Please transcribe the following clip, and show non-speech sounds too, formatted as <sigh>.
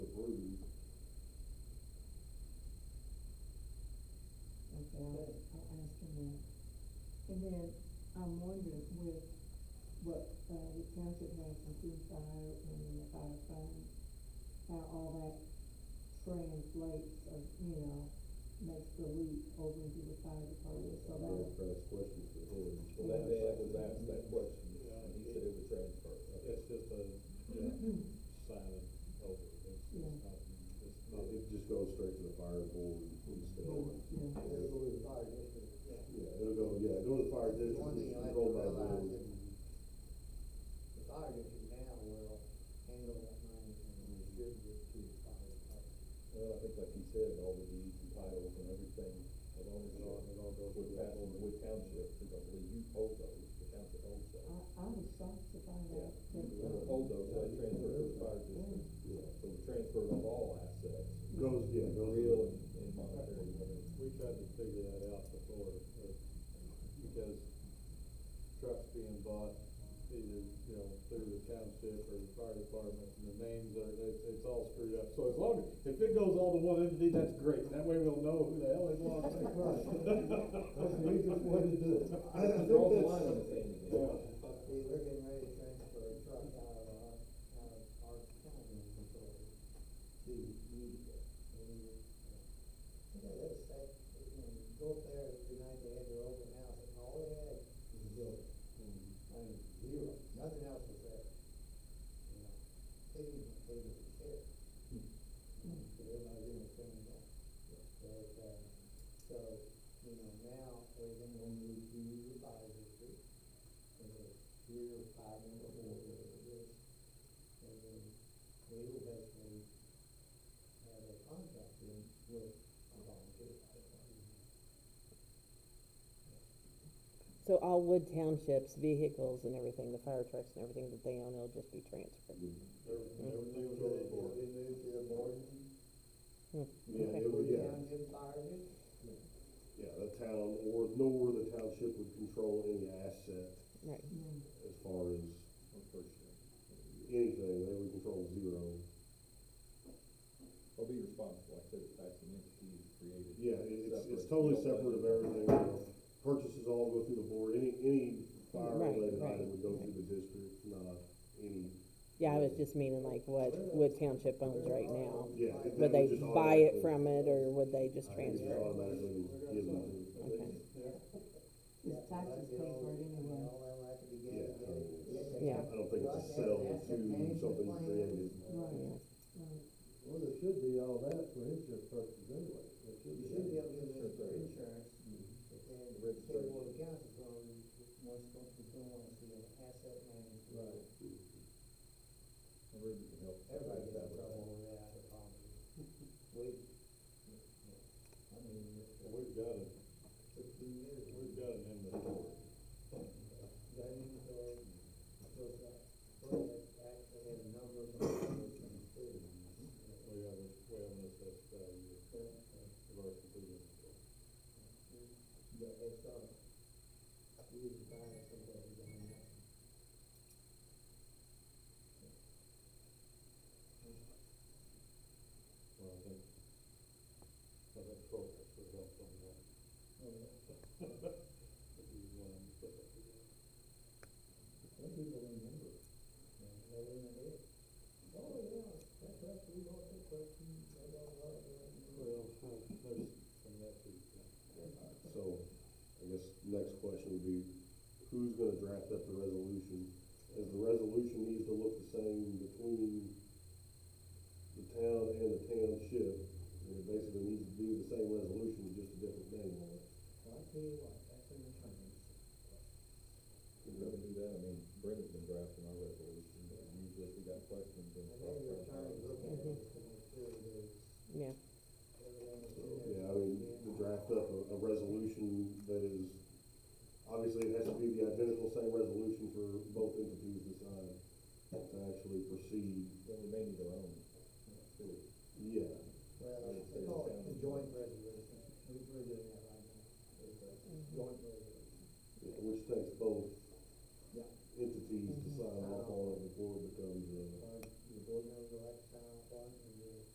uh, township has improved fire and the fire fund, how all that translates of, you know, makes the leap over into the fire department, so that is, That's questions for him. Well, that day I was asked that question, Yeah, and he it- said it would transfer. It's just a, yeah, silent over, it's, it's Yeah. not, it's not, It just goes straight to the fire board instead of, yeah. It'll go to the fire district. yeah, it'll go, yeah, go to the fire district. One thing you have to controlled by the realize board. is the fire district now will handle that money and distribute it to the fire department. Well, I think like he said, all the deeds and titles and everything, as long as it all, it all goes with that, with township, because I believe you hold those, the township holds I, those. I was shocked to find out that, uh, You Hold those, so they transfer to the fire district, Yeah. so the transfer of all assets, Goes, yeah, goes. real and and monetary, I mean, we tried to figure that out before, but, because trucks being bought either, you know, through the township or the fire department, and the names are, it's, it's all screwed up, so as long, as if it goes all to one entity, that's great, that way we'll know who the hell it belongs to. We just wanted to, I <laughs> I think draw the line on the that's, sand again. Yeah. See, we're getting ready to transfer a truck out of our, out of our county authority to Utica. And, uh, You know, that's, that, you know, you go up there tonight, they had their open house, and all they had was building. I mean, zero, nothing else was there. You know, they didn't, even- they didn't even care. But everybody's in the same boat. But, uh, so, you know, now we're gonna go move to the fire district and the three or five member board, whatever it is. And then we will basically have a contract in with a volunteer fire department. So all Wood Township's vehicles and everything, the fire trucks and everything that they own, will just be transferred? Everything, everything was over the board. They move to the board, yeah, Okay. it would, yeah. township fire district. Yeah, the town or, nor the township would control any asset Right, mm, as far as on first year. anything, they would control zero. I'll be responsible, I said, the taxing entity is created. Yeah, it- it's, it's totally Separate. You don't separate of let it- everything, you know, purchases all go through the board, any, any fire Right, related right, item would go through the district, not any. yeah, I was just meaning like what Wood Township owns right now. Yeah. that Would Would they just buy it automatically- from it, or would they just I think it's transfer it? Automatically given to. Okay. Yeah, It's taxes budget, paid for it all- anyway. All that will have to be Yeah, gathered, I mean, gathered. it's- Yeah. I don't think it's a sell to something created. Right. Well, there should be all that for insurance purposes anyway. There should You be. should be able to get Sure, their sure. insurance, and the state board of accounts is going, wants, is going to want to see an asset management. Right. Everybody can help. Everybody gets in trouble when they have a problem. <laughs> We, I mean, We've got it, fifteen years, we've got it in the board. we've done it for, for that, for that, actually had a number of numbers in the city. We haven't, we haven't assessed value of our complete inventory. Yeah, it's, um, we need to buy somebody down there. Well, I think, I think progress would help on that. Oh, If you want to put that together. Some people remember, it, you know, they remember it. Oh, yeah, that question, we got that question, I got a lot of that. Well, there's some that too. So, I guess next question would be, who's gonna draft up the resolution? As the resolution needs to look the same between the town and the township, and it basically needs to be the same resolution, just a different name on it. Well, I uh, tell you what, that's an attorney's. We'd rather do that, I mean, Brenda's been drafting our resolution, but usually if we got questions and. And then your attorney look at it to make sure that it's, Yeah, everything is So, in there. yeah, I mean, to draft up a, a resolution that is, obviously it has to be the identical same resolution for both entities to sign, to actually proceed, Then we may need our own, too. yeah. Well, they call it the joint Mm-hmm. resolution, we, we're doing that right now, it's a joint resolution. Yeah, which takes